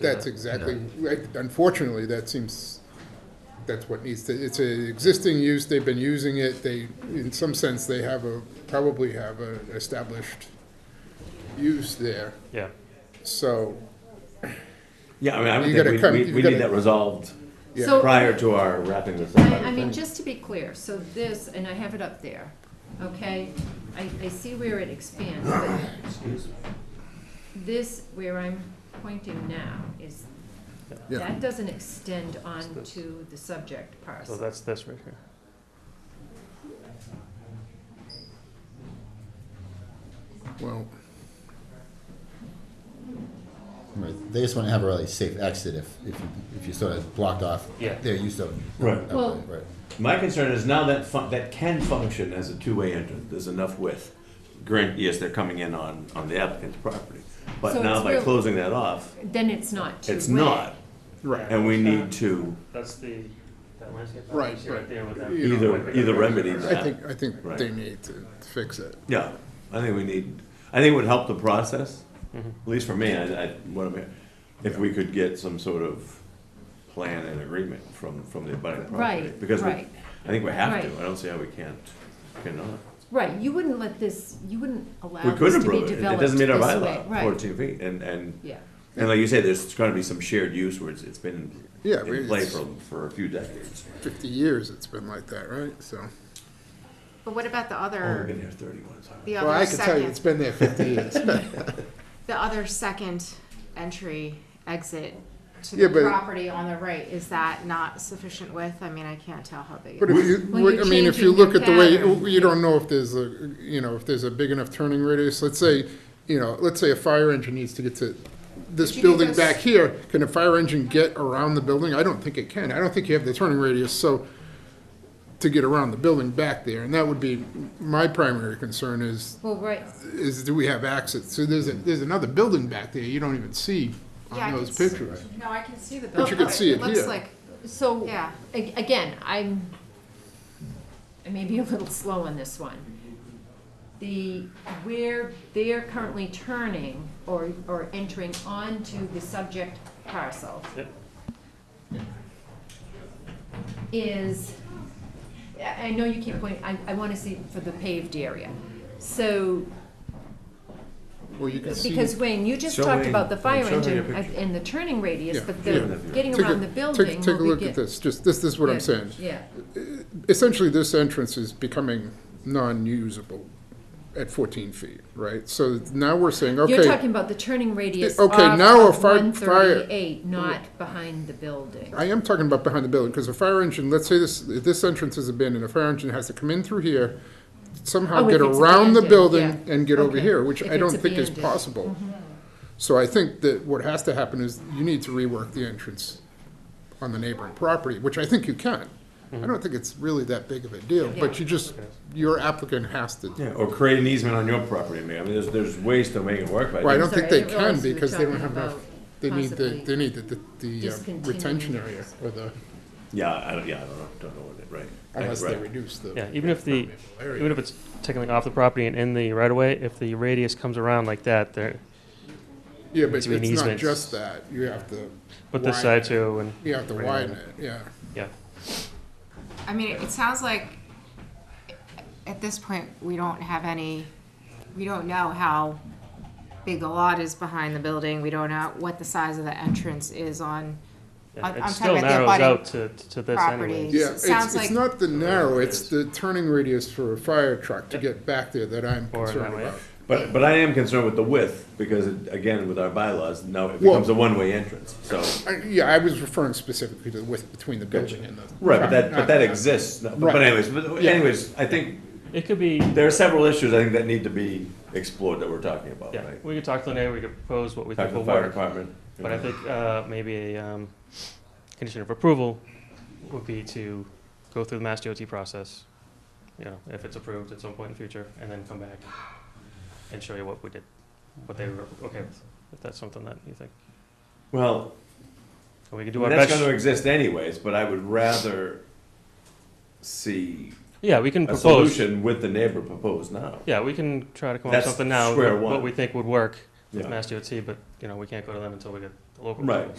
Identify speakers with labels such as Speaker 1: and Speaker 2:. Speaker 1: That's exactly, right. unfortunately, that seems, that's what needs to, it's an existing use, they've been using it, they, in some sense, they have a, probably have a established use there,
Speaker 2: Yeah.
Speaker 1: so,
Speaker 3: Yeah, I mean, I
Speaker 1: You
Speaker 3: would
Speaker 1: gotta
Speaker 3: think
Speaker 1: come-
Speaker 3: we-
Speaker 1: you
Speaker 3: we, we
Speaker 1: gotta-
Speaker 3: need that resolved
Speaker 4: So-
Speaker 3: prior to our wrapping this up.
Speaker 4: I, I
Speaker 3: would
Speaker 4: mean,
Speaker 3: think.
Speaker 4: just to be clear, so this, and I have it up there, okay? I, I see where it expands, but this, where I'm pointing now, is,
Speaker 5: Yeah.
Speaker 4: that doesn't extend onto the subject
Speaker 2: So
Speaker 4: parcel.
Speaker 2: that's this right here.
Speaker 1: well,
Speaker 5: Right, They just want to have a really safe exit if, if, you- if you sort of blocked off
Speaker 2: Yeah.
Speaker 5: their use of.
Speaker 3: Right.
Speaker 5: of the-
Speaker 4: Well-
Speaker 5: Right.
Speaker 3: My concern is now that fun, that can function as a two-way entrance, there's enough width. Grant, yes, they're coming in on, on the applicant's property,
Speaker 4: So
Speaker 3: but now
Speaker 4: it's
Speaker 3: by
Speaker 4: real-
Speaker 3: closing that off,
Speaker 4: Then it's not two-way.
Speaker 3: it's not.
Speaker 1: right,
Speaker 3: And we need to
Speaker 2: That's the, that landscape.
Speaker 1: Right, right. right
Speaker 2: there with
Speaker 1: that- You know,
Speaker 3: either, either remedy
Speaker 1: I
Speaker 3: that.
Speaker 1: think, I think
Speaker 3: Right.
Speaker 1: they need to fix it.
Speaker 3: Yeah, I think we need, I think it would help the process, at least for me, I, I, what I'm, hearing. if we could get some sort of plan and agreement from, from the abutting property.
Speaker 4: Right,
Speaker 3: Because we,
Speaker 4: right.
Speaker 3: I think we have to,
Speaker 4: Right.
Speaker 3: I don't see how we can't, cannot.
Speaker 4: Right, you wouldn't let this, you wouldn't allow
Speaker 3: We could
Speaker 4: this to be
Speaker 3: approve it, it
Speaker 4: developed
Speaker 3: doesn't meet our
Speaker 4: this way.
Speaker 3: bylaw,
Speaker 4: Right,
Speaker 3: fourteen feet, and, and,
Speaker 4: yeah.
Speaker 3: and like you say, there's gonna be some shared use where it's, it's been
Speaker 1: Yeah, we-
Speaker 3: in play
Speaker 1: it's-
Speaker 3: for, for a few decades.
Speaker 1: Fifty years it's been like that, right, so.
Speaker 6: But what about the
Speaker 3: Only
Speaker 6: other,
Speaker 3: Oh, been here thirty-one, so.
Speaker 6: the
Speaker 1: Oh, Well, I
Speaker 6: other
Speaker 1: can tell you, it's
Speaker 6: second,
Speaker 1: been there fifty years.
Speaker 6: the other second entry exit to
Speaker 1: Yeah,
Speaker 6: the
Speaker 1: but-
Speaker 6: property on the right? Is that not sufficient width? I mean, I can't tell how big.
Speaker 1: But
Speaker 6: it is.
Speaker 1: if you,
Speaker 4: Well,
Speaker 1: what- I
Speaker 4: you're
Speaker 1: mean, if you
Speaker 4: changing your
Speaker 1: look at the way,
Speaker 4: pattern.
Speaker 1: you don't know if there's a, you know, if there's a big enough turning radius, let's say, you know, let's say a fire engine needs to get to this
Speaker 6: But you
Speaker 1: building
Speaker 6: think
Speaker 1: back
Speaker 6: that's-
Speaker 1: here, can a fire engine get around the building? I don't think it can, I don't think you have the turning radius, so, to get around the building back there, and that would be, my primary concern is,
Speaker 4: Well, right,
Speaker 1: is do we have access? So there's, a there's another building back there you don't even see
Speaker 6: Yeah, I
Speaker 1: on those
Speaker 6: can s-
Speaker 1: pictures.
Speaker 6: No, I can see the building.
Speaker 1: But you can see it
Speaker 6: looks
Speaker 1: here.
Speaker 6: like,
Speaker 4: so.
Speaker 6: yeah.
Speaker 4: A- Again, I'm, I may be a little slow on this one. The, where they're currently turning or, or entering onto the subject parcel
Speaker 2: Yep.
Speaker 4: is, I I know you keep pointing, I, I want to see for the paved area. So,
Speaker 1: Well, you can see.
Speaker 4: because Wayne, you just
Speaker 3: Show
Speaker 4: talked
Speaker 3: Wayne-
Speaker 4: about the
Speaker 3: Wayne,
Speaker 4: fire
Speaker 3: show her
Speaker 4: engine
Speaker 3: your picture.
Speaker 4: and the turning radius,
Speaker 1: Yeah,
Speaker 4: but
Speaker 1: yeah.
Speaker 4: the getting
Speaker 1: Take a-
Speaker 4: around the
Speaker 1: take-
Speaker 4: building
Speaker 1: Take a
Speaker 4: will
Speaker 1: look
Speaker 4: be
Speaker 1: at
Speaker 4: get-
Speaker 1: this, just, this, this is what
Speaker 4: Yeah,
Speaker 1: I'm saying.
Speaker 4: Yeah,
Speaker 1: essentially this entrance is becoming non-usable at 14 feet, right? So now we're saying,
Speaker 4: You're
Speaker 1: okay,
Speaker 4: talking about the turning radius
Speaker 1: Yeah,
Speaker 4: off
Speaker 1: okay, now a
Speaker 4: of
Speaker 1: fire-
Speaker 4: one thirty-eight, not behind the building.
Speaker 1: I am talking about behind the building, because a fire engine, let's say this, if this entrance is abandoned, a fire engine has to come in through here, somehow
Speaker 4: Oh, if
Speaker 1: get
Speaker 4: it's
Speaker 1: around the
Speaker 4: abandoned,
Speaker 1: building
Speaker 4: yeah.
Speaker 1: and get over
Speaker 4: Okay.
Speaker 1: here, which
Speaker 4: If
Speaker 1: I don't
Speaker 4: it's
Speaker 1: think is
Speaker 4: abandoned. Mm-hmm.
Speaker 1: possible. So I think that what has to happen is you need to rework the entrance on the neighboring property, which I think you can. I don't think it's really that big of a deal, but
Speaker 4: Yeah.
Speaker 1: you just, your applicant has to
Speaker 3: Yeah, or create an easement on your property, I mean, I mean, there's, there's ways to make it work, but.
Speaker 1: Well, I
Speaker 4: I'm
Speaker 1: don't think
Speaker 4: sorry, I
Speaker 1: they
Speaker 4: didn't
Speaker 1: can
Speaker 4: realize we were
Speaker 1: because they don't
Speaker 4: talking
Speaker 1: have enough,
Speaker 4: about
Speaker 1: they need the,
Speaker 4: possibly
Speaker 1: they need the, the- the um,
Speaker 4: discontinuing
Speaker 1: retention
Speaker 4: it.
Speaker 1: area or the,
Speaker 3: Yeah, I don't, yeah, I don't know, don't know what it, right.
Speaker 1: unless
Speaker 3: Right.
Speaker 1: they reduce the.
Speaker 2: Yeah, even if the,
Speaker 1: permeable area.
Speaker 2: even if it's technically off the property and in the right of way, if the radius comes around like that, there,
Speaker 1: Yeah, but
Speaker 2: it's an
Speaker 1: it's not
Speaker 2: easement.
Speaker 1: just that, you have to,
Speaker 2: put this
Speaker 1: Widen
Speaker 2: side too and,
Speaker 1: you have to
Speaker 2: Right.
Speaker 1: widen it, yeah.
Speaker 2: yeah.
Speaker 6: I mean, it sounds like at this point, we don't have any, we don't know how big the lot is behind the building. We don't know what the size of the entrance is on,
Speaker 2: Yeah,
Speaker 6: I'm-
Speaker 2: It
Speaker 6: I'm
Speaker 2: still
Speaker 6: talking about the
Speaker 2: narrows
Speaker 6: abutting
Speaker 2: out to, to this
Speaker 6: property.
Speaker 2: anyway.
Speaker 1: Yeah,
Speaker 6: Sounds
Speaker 1: it's, it's
Speaker 6: like-
Speaker 1: not the narrow, it's
Speaker 2: Yes.
Speaker 1: the turning radius for a fire truck to
Speaker 2: Yep.
Speaker 1: get back there that I'm
Speaker 2: Or in
Speaker 1: concerned
Speaker 2: that way.
Speaker 1: about.
Speaker 3: But, but I am concerned with the width, because it- again, with our bylaws, now it
Speaker 1: Well-
Speaker 3: becomes a one-way entrance, so.
Speaker 1: I- Yeah, I was referring specifically to the width between the building and the.
Speaker 3: Right, but that,
Speaker 1: not-
Speaker 3: but that
Speaker 1: not-
Speaker 3: exists, No, but
Speaker 1: Right.
Speaker 3: but anyways, but
Speaker 1: Yeah.
Speaker 3: anyways, I think,
Speaker 2: It could be,
Speaker 3: there are several issues, I think, that need to be explored that we're talking about,
Speaker 2: yeah,
Speaker 3: right?
Speaker 2: we could talk to the neighbor, we could propose what we
Speaker 3: Talk
Speaker 2: think
Speaker 3: to
Speaker 2: will
Speaker 3: the fire
Speaker 2: work.
Speaker 3: department. you
Speaker 2: But I
Speaker 3: know.
Speaker 2: think uh, maybe a um, condition of approval would be to go through the Mass DOT process, you know, if it's approved at some point in the future, and then come back and show you what we did, what they were okay with, if that's something that you think.
Speaker 3: Well,
Speaker 2: And we could do our
Speaker 3: that's
Speaker 2: best.
Speaker 3: gonna exist anyways, but I would rather see
Speaker 2: Yeah, we can
Speaker 3: a
Speaker 2: propose.
Speaker 3: solution with the neighbor proposed now.
Speaker 2: Yeah, we can try to come up with
Speaker 3: That's
Speaker 2: something now,
Speaker 3: square
Speaker 2: what-
Speaker 3: one.
Speaker 2: what we think would work with
Speaker 3: Yeah.
Speaker 2: Mass DOT, but, you know, we can't go to them until we get
Speaker 7: the local.
Speaker 2: Right.